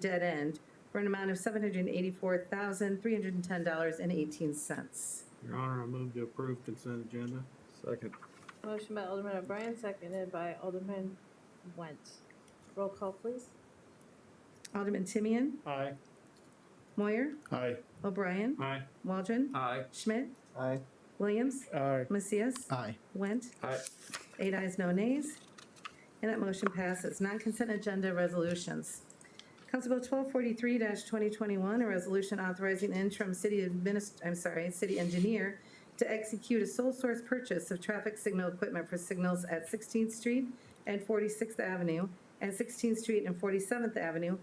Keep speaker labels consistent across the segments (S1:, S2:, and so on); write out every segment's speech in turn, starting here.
S1: dead end for an amount of $784,310.18.
S2: Your Honor, I move to approve consent agenda.
S3: Second.
S4: Motion by Alderman O'Brien, seconded by Alderman Went. Roll call, please.
S1: Alderman Timian?
S2: Aye.
S1: Moyer?
S5: Aye.
S1: O'Brien?
S2: Aye.
S1: Waldron?
S3: Aye.
S1: Schmidt?
S5: Aye.
S1: Williams?
S5: Aye.
S1: Macias?
S5: Aye.
S1: Went?
S3: Aye.
S1: Eight ayes, no nays. And that motion passes. Non-consent agenda resolutions. Council Bill 1243-2021, a resolution authorizing interim city adminis, I'm sorry, city engineer to execute a sole source purchase of traffic signal equipment for signals at 16th Street and 46th Avenue, and 16th Street and 47th Avenue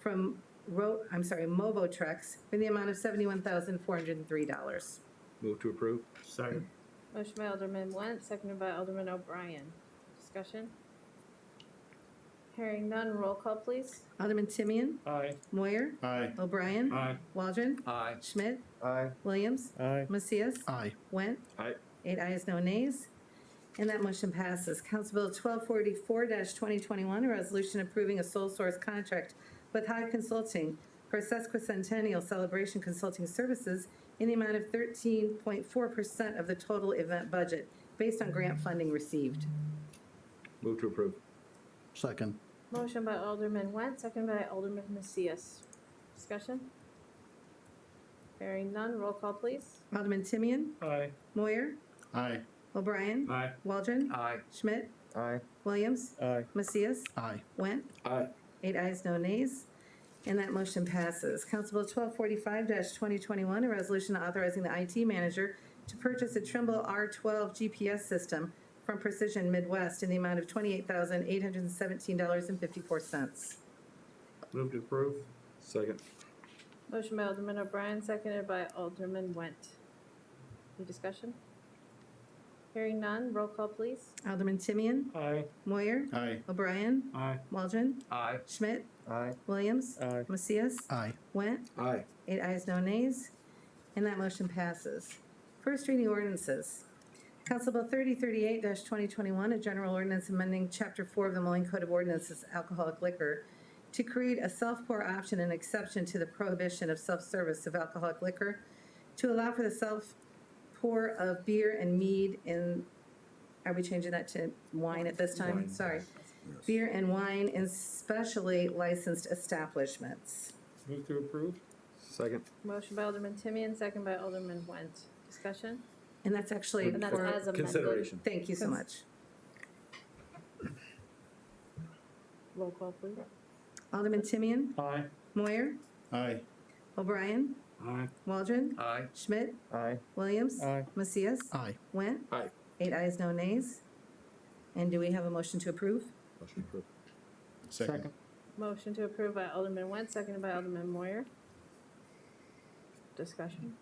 S1: from Ro, I'm sorry, Mobo Trucks, for the amount of $71,403.
S3: Move to approve.
S2: Second.
S4: Motion by Alderman Went, seconded by Alderman O'Brien. Discussion? Hearing none, roll call, please.
S1: Alderman Timian?
S2: Aye.
S1: Moyer?
S5: Aye.
S1: O'Brien?
S2: Aye.
S1: Waldron?
S3: Aye.
S1: Schmidt?
S5: Aye.
S1: Williams?
S5: Aye.
S1: Macias?
S5: Aye.
S1: Went?
S3: Aye.
S1: Eight ayes, no nays. And that motion passes. Council Bill twelve forty-four twenty twenty-one, a resolution approving a sole source contract with High Consulting for sesquicentennial celebration consulting services in the amount of thirteen point four percent of the total event budget, based on grant funding received.
S3: Move to approve.
S5: Second.
S4: Motion by Alderman Went, seconded by Alderman Macias. Discussion? Hearing none, roll call, please.
S1: Alderman Timian?
S2: Aye.
S1: Moyer?
S5: Aye.
S1: O'Brien?
S2: Aye.
S1: Waldron?
S3: Aye.
S1: Schmidt?
S5: Aye.
S1: Williams?
S5: Aye.
S1: Macias?
S5: Aye.
S1: Went?
S3: Aye.
S1: Eight ayes, no nays, and that motion passes. Council Bill twelve forty-five twenty twenty-one, a resolution authorizing the IT manager to purchase a Trimble R twelve GPS system from Precision Midwest in the amount of twenty-eight thousand eight hundred and seventeen dollars and fifty-four cents.
S2: Move to approve.
S3: Second.
S4: Motion by Alderman O'Brien, seconded by Alderman Went. Any discussion? Hearing none, roll call, please.
S1: Alderman Timian?
S2: Aye.
S1: Moyer?
S5: Aye.
S1: O'Brien?
S2: Aye.
S1: Waldron?
S3: Aye.
S1: Schmidt?
S5: Aye.
S1: Williams?
S5: Aye.
S1: Macias?
S5: Aye.
S1: Went?
S3: Aye.
S1: Eight ayes, no nays, and that motion passes. First reading ordinances. Council Bill 3038-2021, a general ordinance amending Chapter 4 of the Moline Code of Ordinances, alcoholic liquor, to create a self-pour option and exception to the prohibition of self-service of alcoholic liquor, to allow for the self-pour of beer and mead in, are we changing that to wine at this time?
S3: Wine.
S1: Sorry. Beer and wine in specially licensed establishments.
S2: Move to approve.
S3: Second.
S4: Motion by Alderman Timian, second by Alderman Went. Discussion?
S1: And that's actually
S4: And that's
S1: for-
S4: as amended.
S3: Consideration.
S1: Thank you so much.
S4: Roll call, please.
S1: Alderman Timian,
S2: Aye.
S1: Moyer,
S5: Aye.
S1: O'Brien,
S2: Aye.
S1: Waldron,
S3: Aye.
S1: Schmidt,
S5: Aye.
S1: Williams,
S5: Aye.
S1: Macias,
S5: Aye.
S1: Went.
S3: Aye.
S1: Eight ayes, no nays. And do we have a motion to approve?
S3: Motion approved.
S5: Second.
S4: Motion to approve by Alderman Went, seconded by Alderman Moyer. Discussion?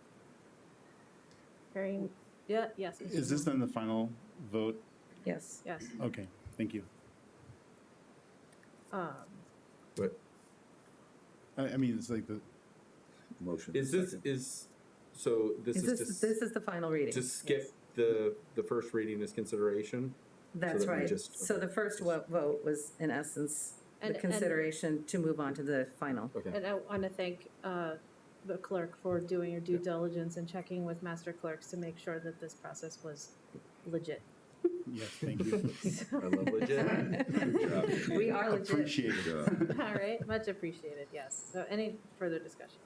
S4: Hearing, yeah, yes. Mr.
S6: Is this
S4: Moore.
S6: then the final vote?
S1: Yes.
S4: Yes.
S6: Okay, thank you.
S4: Um,
S3: But
S6: I, I mean, it's like the,
S3: motion. Is this, is, so this
S1: Is
S3: is
S1: this,
S3: just,
S1: this is the final reading?
S3: just skip the, the first reading as consideration?
S1: That's
S3: so that we
S1: right.
S3: just-
S1: So the first wo- vote was in essence the
S4: And- and-
S1: consideration to move on to the final.
S3: Okay.
S4: And I want to thank uh, the clerk for doing your due diligence and checking with master clerks to make sure that this process was legit.
S6: yes, thank you.
S3: I love legit.
S1: We are legit.
S6: Appreciate it.
S4: All right, much appreciated, yes. So any further discussion?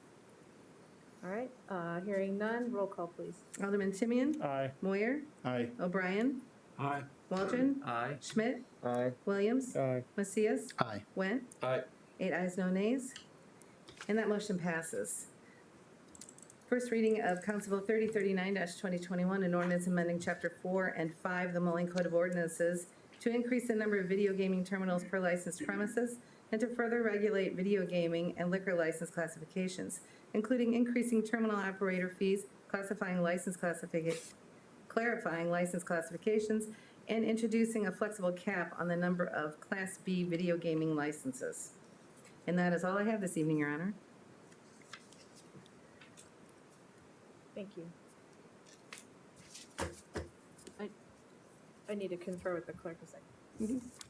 S4: All right, uh, hearing none, roll call, please.
S1: Alderman Timian,
S2: Aye.
S1: Moyer,
S6: Aye,
S1: O'Brien,
S2: Aye.
S1: Waldron,
S3: Aye.
S1: Schmidt,
S5: Aye.
S1: Williams,
S2: Aye.
S1: Macias,
S5: Aye.
S1: Went.
S3: Aye.
S1: Eight ayes, no nays. And that motion passes. First reading of Council Bill 3039-2021, an ordinance amending Chapter 4 and 5 of the Moline Code of Ordinances to increase the number of video gaming terminals per licensed premises and to further regulate video gaming and liquor license classifications, including increasing terminal operator fees, classifying license classification, clarifying license classifications, and introducing a flexible cap on the number of Class B video gaming licenses. And that is all I have this evening, Your Honor.
S4: Thank you. I, I need to confer with the clerk a second.